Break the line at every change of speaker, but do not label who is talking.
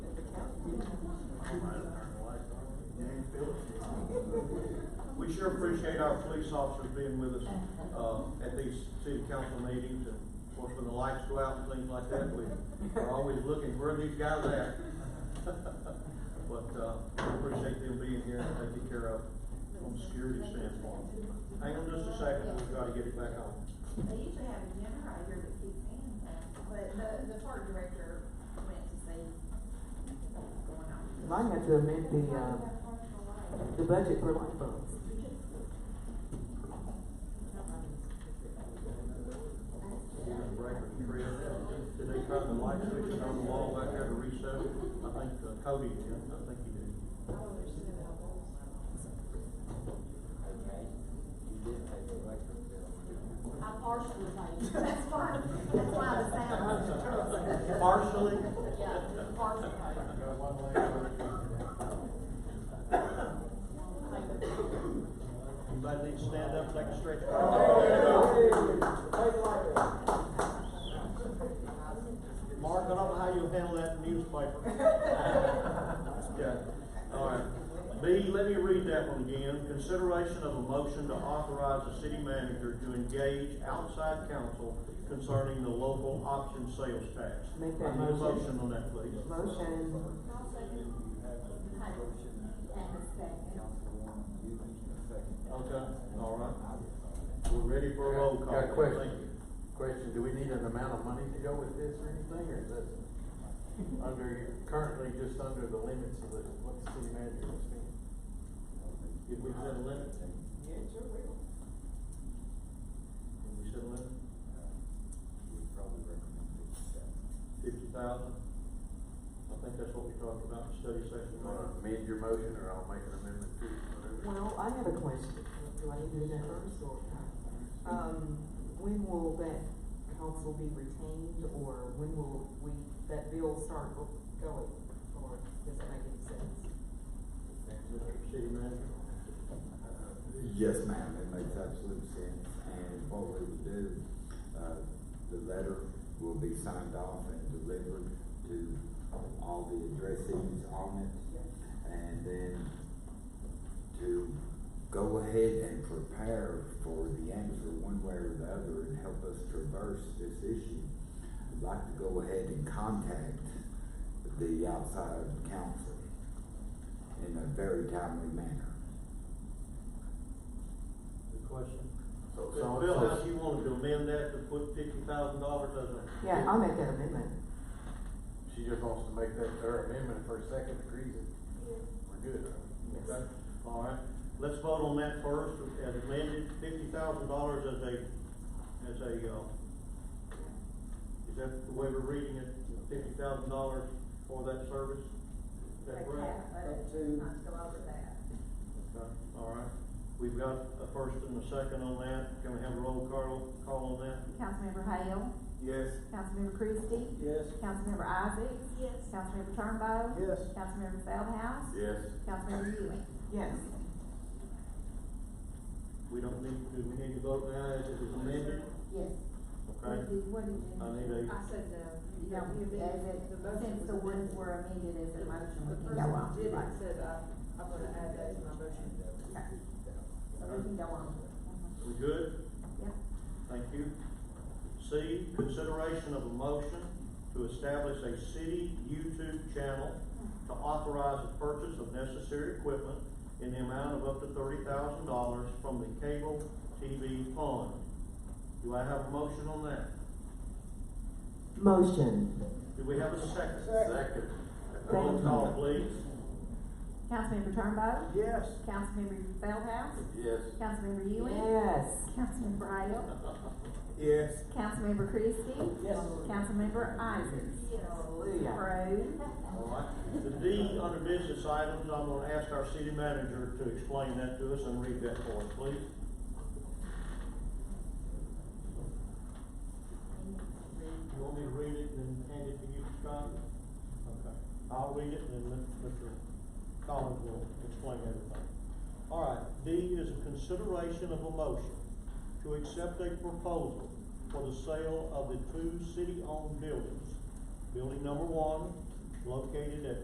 we sure appreciate our police officers being with us, um, at these city council meetings, and of course, when the lights go out and things like that, we are always looking, where are these guys at? But, uh, we appreciate them being here and taking care of, from a security standpoint. Hang on just a second, we've gotta get it back on.
They used to have a dinner out here that keeps saying that, but the, the park director went to see what was going on.
Mine had to amend the, uh, the budget for light bulbs.
We're gonna break the tree. Did they cut the light switch on the wall back there to reset it? I think uh, Cody did, I think he did.
I partially paid, that's why, that's why the sound was the truth.
Partially?
Yeah, partially paid.
Anybody need to stand up, take a stretch? Mark, I don't know how you'll handle that newspaper. Okay, all right. B, let me read that one again. Consideration of a motion to authorize the city manager to engage outside counsel concerning the local option sales tax.
Make that
I need a
motion.
motion on that, please.
Motion,
Okay, all right. We're ready for a roll call.
Got a question.
Thank you.
Question, do we need an amount of money to go with this or anything, or is this under, currently just under the limits of the, what the city manager is spending?
Did we set a limit? Did we set a limit? Fifty thousand? I think that's what we talked about in study session.
You wanna amend your motion, or I'll make an amendment to it, whatever?
well, I have a question, do I need to do that first or? Um, when will that council be retained, or when will we, that bill start go- going, or does that make any sense?
Mr. City Manager?
Yes, ma'am, it makes absolute sense, and what we would do, uh, the letter will be signed off and delivered to all the addressees on it. And then to go ahead and prepare for the answer one way or the other and help us traverse this issue. I'd like to go ahead and contact the outside council in a very timely manner.
Good question.
So, so-
Bill, how
so-
do you want to amend that to put fifty thousand dollars as a?
Yeah, I'll make that amendment.
she just wants to make that her amendment, if her second agrees it, we're good.
Yes.
Okay, all right. Let's vote on that first, as amended, fifty thousand dollars as a, as a, uh, is that the way we're reading it? Fifty thousand dollars for that service? Is that correct?
Not to go over that.
Okay, all right. We've got a first and a second on that. Can we have a roll call, call on that?
Councilmember Hale.
Yes.
Councilmember Christie.
Yes.
Councilmember Isaacs.
Yes.
Councilmember Turnbow.
Yes.
Councilmember Feldhouse.
Yes.
Councilmember Ewing.
Yes,
We don't need, do we need to vote now as it is amended?
Yes.
Okay,
What did you?
I need a,
I said the, yeah,
Yeah,
we
as
amended,
it,
the motion was
since the ones
amended.
were amended as a motion.
The
we can
person
go on.
did it,
Right.
said, uh, I'm gonna add that to my motion.
Okay. So we can go on. Mhm.
we good?
Yep.
Thank you. C, consideration of a motion to establish a city YouTube channel to authorize the purchase of necessary equipment in the amount of up to thirty thousand dollars from the cable TV fund. Do I have a motion on that?
motion,
Do we have a second?
Second.
Roll call, please.
Councilmember Turnbow.
Yes.
Councilmember Feldhouse.
Yes.
Councilmember Ewing.
yes.
Councilmember Hale.
Yes.
Councilmember Christie. Yes. Councilmember Isaacs.
Hallelujah.
Approved.
All right. The D under business items, I'm gonna ask our city manager to explain that to us and read that for us, please. You want me to read it and then hand it to you, Scott? Okay. I'll read it and then Mr. Collins will explain everything. All right, D is a consideration of a motion to accept a proposal for the sale of the two city-owned buildings. Building number one, located at